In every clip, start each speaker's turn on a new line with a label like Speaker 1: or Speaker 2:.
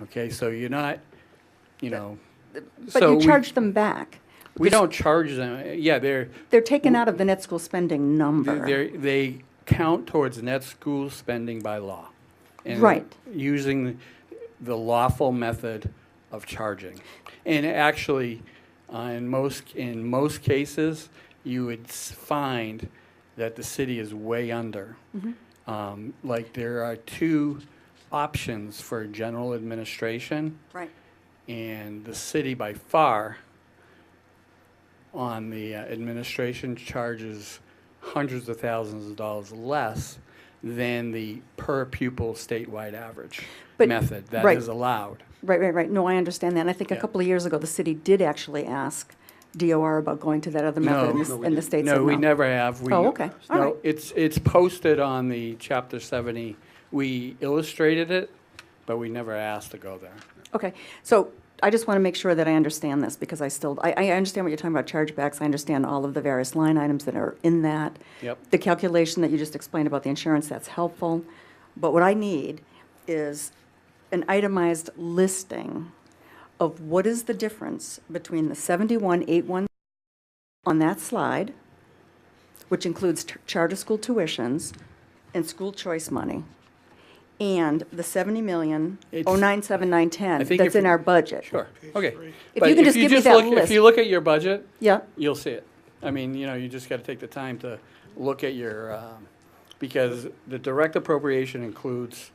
Speaker 1: Okay, so you're not, you know,
Speaker 2: But
Speaker 1: So
Speaker 2: you
Speaker 1: we-
Speaker 2: charge them back.
Speaker 1: we don't charge them, yeah, they're,
Speaker 2: They're taken out of the net school spending number.
Speaker 1: they're, they count towards net school spending by law. and
Speaker 2: Right.
Speaker 1: Using the lawful method of charging. And actually, uh, in most, in most cases, you would s- find that the city is way under.
Speaker 2: Mm-hmm.
Speaker 1: Um, Like, there are two options for general administration.
Speaker 2: Right.
Speaker 1: and the city by far on the uh, administration charges hundreds of thousands of dollars less than the per pupil statewide average
Speaker 2: But-
Speaker 1: method that
Speaker 2: right.
Speaker 1: is allowed.
Speaker 2: Right, right, right. No, I understand that. And I think a
Speaker 1: Yeah.
Speaker 2: couple of years ago, the city did actually ask DOR about going to that other method, and the s-
Speaker 1: No,
Speaker 2: and the state said no.
Speaker 1: No, we never have. We-
Speaker 2: Oh, okay. All right.
Speaker 1: No, it's, it's posted on the chapter seventy. We illustrated it, but we never asked to go there.
Speaker 2: Okay, so I just want to make sure that I understand this, because I still, I, I understand what you're talking about, chargebacks, I understand all of the various line items that are in that.
Speaker 1: Yep.
Speaker 2: The calculation that you just explained about the insurance, that's helpful, but what I need is an itemized listing of what is the difference between the seventy-one, eight, one on that slide, which includes t- charter school tuitions and school choice money, and the seventy million, oh
Speaker 1: It's-
Speaker 2: nine seven nine
Speaker 1: I
Speaker 2: ten
Speaker 1: think
Speaker 2: that's
Speaker 1: if-
Speaker 2: in our budget.
Speaker 1: Sure, okay.
Speaker 2: If
Speaker 1: But
Speaker 2: you can just give me that
Speaker 1: look- If
Speaker 2: list.
Speaker 1: you look at your budget,
Speaker 2: Yeah,
Speaker 1: you'll see it. I mean, you know, you just got to take the time to look at your, um, because the direct appropriation includes,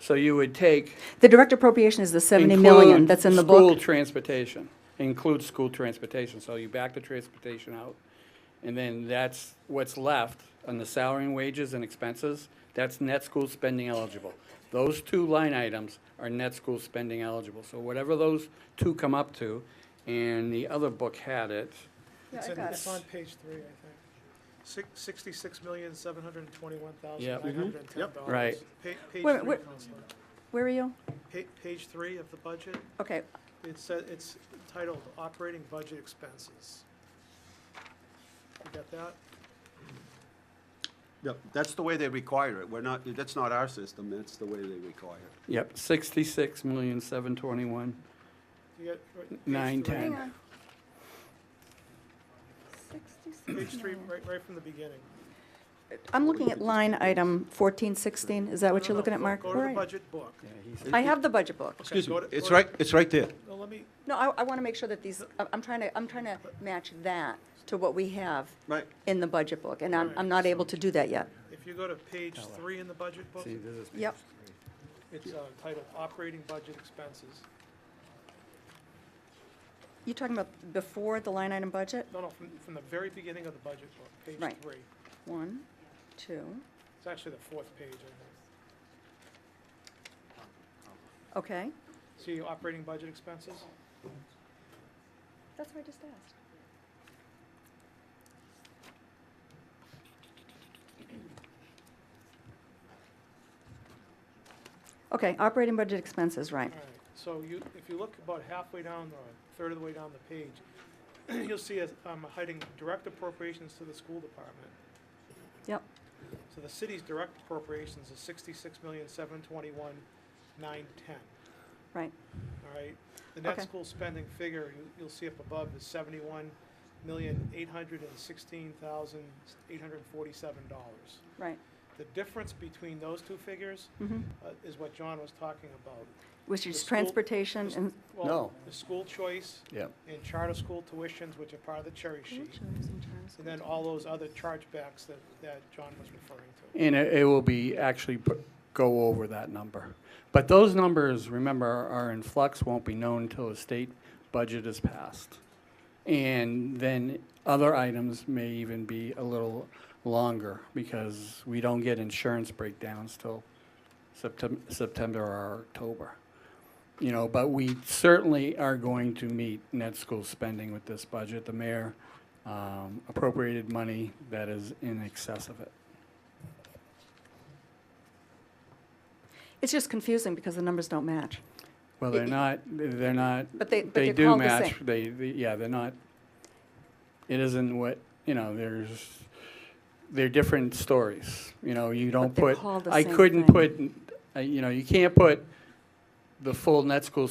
Speaker 1: so you would take.
Speaker 2: the direct appropriation is the seventy million
Speaker 1: include
Speaker 2: that's in the
Speaker 1: School
Speaker 2: book.
Speaker 1: transportation, includes school transportation, so you back the transportation out. And then that's what's left on the salary and wages and expenses, that's net school spending eligible. Those two line items are net school spending eligible, so whatever those two come up to, and the other book had it,
Speaker 3: It's in- It's on page three, I think. Six- Sixty-six million, seven hundred and twenty-one thousand,
Speaker 1: mhm. Yep.
Speaker 3: nine hundred and ten dollars.
Speaker 1: Right.
Speaker 3: Pa- Page
Speaker 2: Wait,
Speaker 3: three,
Speaker 2: wait.
Speaker 3: Counselor.
Speaker 2: Where are you?
Speaker 3: Pa- page three of the budget,
Speaker 2: Okay,
Speaker 3: it said, it's titled Operating Budget Expenses. You got that?
Speaker 4: Yep, that's the way they require it. We're not, that's not our system, that's the way they require it.
Speaker 1: Yep, sixty-six million, seven twenty-one.
Speaker 3: You got, right, page
Speaker 1: Nine,
Speaker 3: three.
Speaker 1: ten.
Speaker 3: Page three, right, right from the beginning.
Speaker 2: I'm looking at line item fourteen sixteen, is that what
Speaker 3: No,
Speaker 2: you're
Speaker 3: no,
Speaker 2: looking at,
Speaker 3: go-
Speaker 2: Mark?
Speaker 3: Go to
Speaker 2: Where
Speaker 3: the
Speaker 2: are you?
Speaker 3: budget book.
Speaker 2: I have the budget book.
Speaker 3: Excuse me,
Speaker 4: It's right, it's right there.
Speaker 3: No, let me,
Speaker 2: No, I, I want to make sure that these, I- I'm trying to, I'm trying to match that to what we have
Speaker 4: Right.
Speaker 2: in the budget book, and I'm, I'm not able to do that yet.
Speaker 3: if you go to page three in the budget book,
Speaker 1: See, this is.
Speaker 2: Yep.
Speaker 3: it's uh, titled Operating Budget Expenses.
Speaker 2: You talking about before the line item budget?
Speaker 3: No, no, from, from the very beginning of the budget book, page
Speaker 2: Right.
Speaker 3: three.
Speaker 2: One, two,
Speaker 3: It's actually the fourth page, I think.
Speaker 2: okay.
Speaker 3: See operating budget expenses?
Speaker 2: That's what I just asked. Okay, operating budget expenses, right.
Speaker 3: All right, so you, if you look about halfway down, or a third of the way down the page, you'll see us, um, hiding direct appropriations to the school department.
Speaker 2: Yep,
Speaker 3: So the city's direct appropriations is sixty-six million, seven twenty-one, nine ten,
Speaker 2: right.
Speaker 3: all right? The net
Speaker 2: Okay.
Speaker 3: school spending figure, you, you'll see up above, is seventy-one million, eight hundred and sixteen thousand, eight hundred and forty-seven dollars.
Speaker 2: Right.
Speaker 3: The difference between those two figures
Speaker 2: Mhm.
Speaker 3: uh, is what John was talking about.
Speaker 2: Which
Speaker 3: The
Speaker 2: is
Speaker 3: school-
Speaker 2: transportation and.
Speaker 3: Well,
Speaker 1: No.
Speaker 3: The school choice
Speaker 1: Yep.
Speaker 3: and charter school tuitions, which are part of the cherry sheet, and then all those other chargebacks that, that John was referring to.
Speaker 1: And it, it will be actually p- go over that number. But those numbers, remember, are in flux, won't be known until the state budget is passed. And then other items may even be a little longer because we don't get insurance breakdowns till Septem- September or October. You know, but we certainly are going to meet net school spending with this budget. The mayor um, appropriated money that is in excess of it.
Speaker 2: It's just confusing because the numbers don't match.
Speaker 1: Well, they're
Speaker 2: It-
Speaker 1: not, they're not.
Speaker 2: But they- but they're
Speaker 1: do
Speaker 2: called the
Speaker 1: match.
Speaker 2: same.
Speaker 1: They, they- yeah, they're not, it isn't what, you know, there's, they're different stories. You know, you don't
Speaker 2: they're
Speaker 1: put,
Speaker 2: called the
Speaker 1: I
Speaker 2: same
Speaker 1: couldn't
Speaker 2: thing.
Speaker 1: put, uh, you know, you can't put the full net school